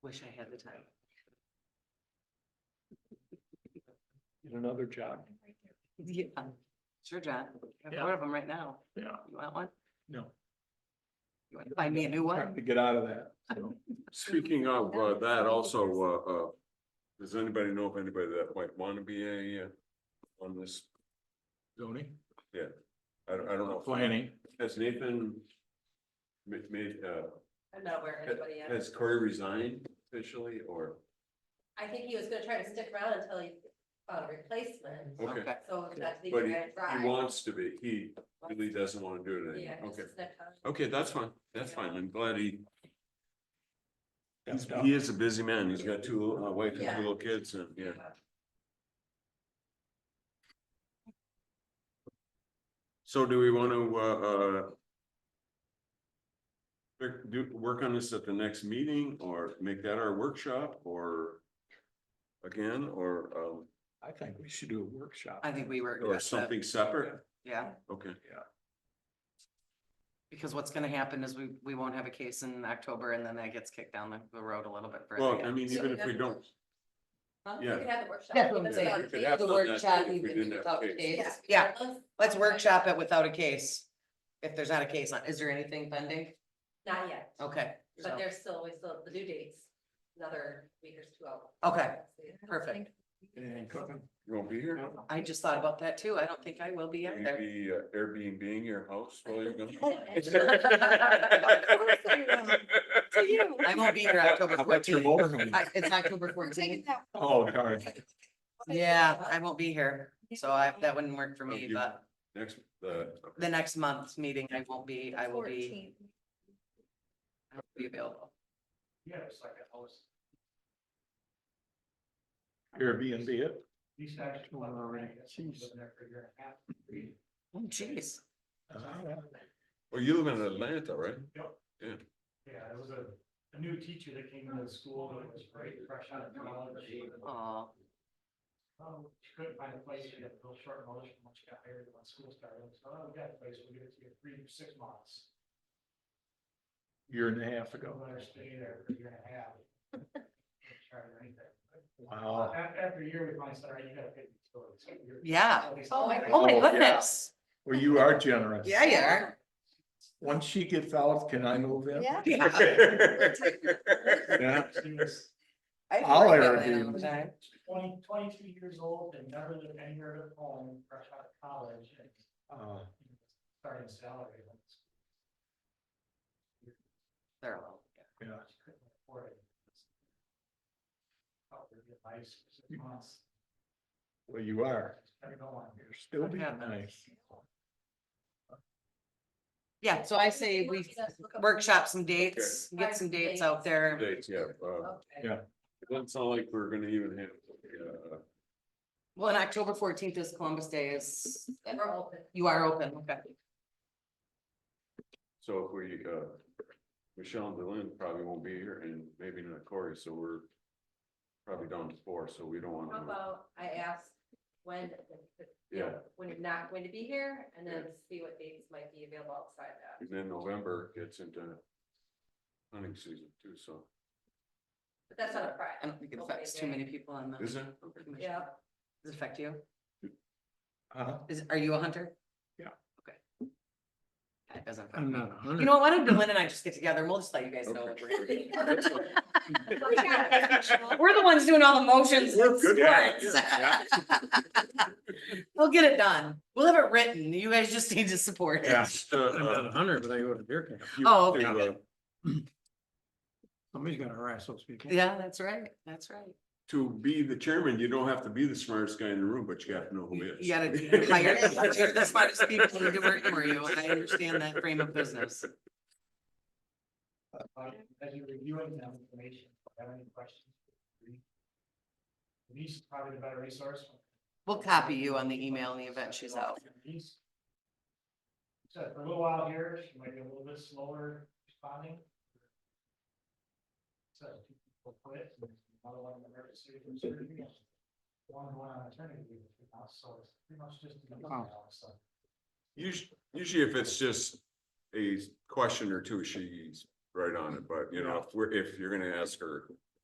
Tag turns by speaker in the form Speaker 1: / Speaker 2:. Speaker 1: wish I had the time.
Speaker 2: Get another job.
Speaker 1: Yeah, sure, John. I have
Speaker 2: Yeah.
Speaker 1: one of them right now.
Speaker 2: Yeah,
Speaker 1: You want one?
Speaker 2: no.
Speaker 1: You want to buy me a new
Speaker 2: Have
Speaker 1: one?
Speaker 2: to get out of that. so.
Speaker 3: Speaking of uh, that also, uh, uh, does anybody know of anybody that might want to be a, uh, on this?
Speaker 2: Zoning,
Speaker 3: I don't, I don't know.
Speaker 2: planning.
Speaker 3: Has Nathan ma- made, uh,
Speaker 4: I'm not aware of
Speaker 3: ha-
Speaker 4: anybody yet.
Speaker 3: has Corey resigned officially or?
Speaker 4: I think he was gonna try to stick around until he found a replacement,
Speaker 3: Okay,
Speaker 1: Okay.
Speaker 4: so that's the
Speaker 3: but he,
Speaker 4: guy
Speaker 3: he wants to be. He really doesn't want to do it
Speaker 4: Yeah.
Speaker 3: anymore. Okay,
Speaker 4: it's not common.
Speaker 3: okay, that's fine. That's fine. I'm glad he,
Speaker 2: That's
Speaker 3: he's-
Speaker 2: tough.
Speaker 3: he is a busy man. He's got two, little- a wife and
Speaker 4: Yeah.
Speaker 3: two little kids and, yeah. So do we want to, uh, uh, work- do, work on this at the next meeting or make that our workshop or again, or, um,
Speaker 2: I think we should do a workshop.
Speaker 1: I think we were.
Speaker 3: or something separate?
Speaker 1: Yeah,
Speaker 3: Okay,
Speaker 1: because what's gonna happen is we, we won't have a case in October and then that gets kicked down the, the road a little bit. further.
Speaker 3: well, I mean, even if we don't.
Speaker 4: Huh? We
Speaker 3: Yeah.
Speaker 4: could have the workshop.
Speaker 5: That's what I'm
Speaker 4: Even
Speaker 5: saying.
Speaker 4: without
Speaker 3: We could
Speaker 4: Kate.
Speaker 3: have
Speaker 5: The
Speaker 3: done that
Speaker 5: workshop,
Speaker 3: if we
Speaker 5: you can
Speaker 3: didn't
Speaker 5: do
Speaker 3: have
Speaker 5: without
Speaker 3: Kate.
Speaker 5: kids.
Speaker 1: Yeah. Let's workshop it without a case. If there's not a case, on- is there anything pending?
Speaker 4: Not yet,
Speaker 1: Okay,
Speaker 4: but
Speaker 1: so,
Speaker 4: there's still, we still, the due dates, another week or two out.
Speaker 1: Okay. perfect.
Speaker 2: And cooking.
Speaker 3: You won't be here?
Speaker 1: I just thought about that too. I don't think I will be
Speaker 3: Will
Speaker 1: out
Speaker 3: you
Speaker 1: there.
Speaker 3: be uh, Airbnb-ing your house while you're gone?
Speaker 1: I won't be here October
Speaker 2: I bet you're
Speaker 1: fourteenth.
Speaker 2: bored.
Speaker 1: It's October
Speaker 5: Taking
Speaker 1: fourteenth.
Speaker 5: that
Speaker 2: Oh, darn.
Speaker 1: Yeah, I won't be here. So I, that wouldn't work for
Speaker 3: Oh,
Speaker 1: me,
Speaker 3: you-
Speaker 1: but
Speaker 3: Next, uh, the,
Speaker 1: the next month's meeting, I won't be, I will
Speaker 5: 14.
Speaker 1: be, I will be available.
Speaker 6: Yeah, it's like a house,
Speaker 2: Airbnb it.
Speaker 6: these guys.
Speaker 2: Oh, all right. Jeez.
Speaker 1: Oh, jeez.
Speaker 2: Uh,
Speaker 3: well, you live in Atlanta, right?
Speaker 6: Yeah, it was a, a new teacher that came into the school, and it was great, fresh out of college.
Speaker 1: Oh,
Speaker 6: Um, she couldn't find a place, she had a real short knowledge from when she got hired when school started, so, oh, we got a place, we'll give it to you three, six months.
Speaker 2: Year and a half
Speaker 6: Go
Speaker 2: ago.
Speaker 6: let her stay there for a year and a half. Didn't Charge her anything.
Speaker 2: Wow.
Speaker 6: After, after a year, we finally said, all right, you gotta pay the utilities. So you're-
Speaker 1: yeah.
Speaker 4: Oh, my
Speaker 1: Oh, my
Speaker 2: Oh, yeah.
Speaker 1: goodness.
Speaker 2: Well, you are generous.
Speaker 1: Yeah, you are.
Speaker 2: Once she gets out, can I move in?
Speaker 5: Yeah.
Speaker 1: Yeah.
Speaker 2: Yeah.
Speaker 6: She was
Speaker 1: I used to
Speaker 2: I'll
Speaker 1: work
Speaker 2: ever
Speaker 1: that
Speaker 2: do-
Speaker 1: all the time.
Speaker 6: 20 22 years old and never lived anywhere at home, fresh out of college and
Speaker 2: Uh,
Speaker 6: starting salary. when it's-
Speaker 1: They're all-
Speaker 2: Yeah.
Speaker 6: she couldn't afford it. Helped her get nice for six months.
Speaker 2: Well, you are.
Speaker 6: Never go on
Speaker 2: You're still being nice.
Speaker 1: Yeah, so I say we workshop some dates, get some dates out there.
Speaker 3: Dates, yeah, uh,
Speaker 4: Okay.
Speaker 2: Yeah.
Speaker 3: it doesn't sound like we're gonna even have, uh,
Speaker 1: Well, and October fourteenth is Columbus Day is,
Speaker 4: And we're open.
Speaker 1: you are open, okay.
Speaker 3: so if we, uh, Michelle and Dylan probably won't be here and maybe not Corey, so we're probably down to four, so we don't
Speaker 4: How
Speaker 3: want to,
Speaker 4: about I ask when,
Speaker 3: yeah.
Speaker 4: you know, when you're not going to be here and then see what dates might be available outside that.
Speaker 3: And then November gets into hunting season too, so,
Speaker 4: But that's not a
Speaker 1: I
Speaker 4: Friday.
Speaker 1: don't think it affects too many people on the.
Speaker 3: is it? Okay.
Speaker 1: commission.
Speaker 4: Yeah.
Speaker 1: Does it affect you?
Speaker 2: Uh,
Speaker 1: Is, are you a hunter?
Speaker 2: Yeah.
Speaker 1: Okay. That doesn't. affect
Speaker 2: I'm
Speaker 1: me.
Speaker 2: not a
Speaker 1: You
Speaker 2: hundred.
Speaker 1: know, what, why don't Dylan and I just get together and we'll just let you guys know. what we're doing. We're the ones doing all the motions.
Speaker 3: We're
Speaker 1: and
Speaker 3: good at it,
Speaker 1: splits. We'll get it done. We'll have it written. You guys just need to support
Speaker 2: Yeah.
Speaker 1: it.
Speaker 3: Just, uh, uh,
Speaker 2: hundred, but I go to deer camp.
Speaker 3: you
Speaker 1: Oh,
Speaker 3: to,
Speaker 1: okay.
Speaker 3: uh,
Speaker 2: Somebody's gotta harass those people.
Speaker 1: Yeah, that's right. That's right.
Speaker 3: To be the chairman, you don't have to be the smartest guy in the room, but you have to know who it is.
Speaker 1: You gotta hire the smartest people to work for you. and I understand that frame of business.
Speaker 6: Uh, As you're reviewing that information, if you have any questions? Denise is probably the better resource.
Speaker 1: We'll copy you on the email in the event she's out.
Speaker 6: Denise. So for a little while here, she might be a little bit slower responding. So two people quit, and another one in emergency room surgery, and one going on maternity leave, now, so it's pretty much just. Denise
Speaker 2: Wow.
Speaker 6: now, so.
Speaker 3: Usually, usually if it's just a question or two, she's right on it, but you know, if we're, if you're gonna ask her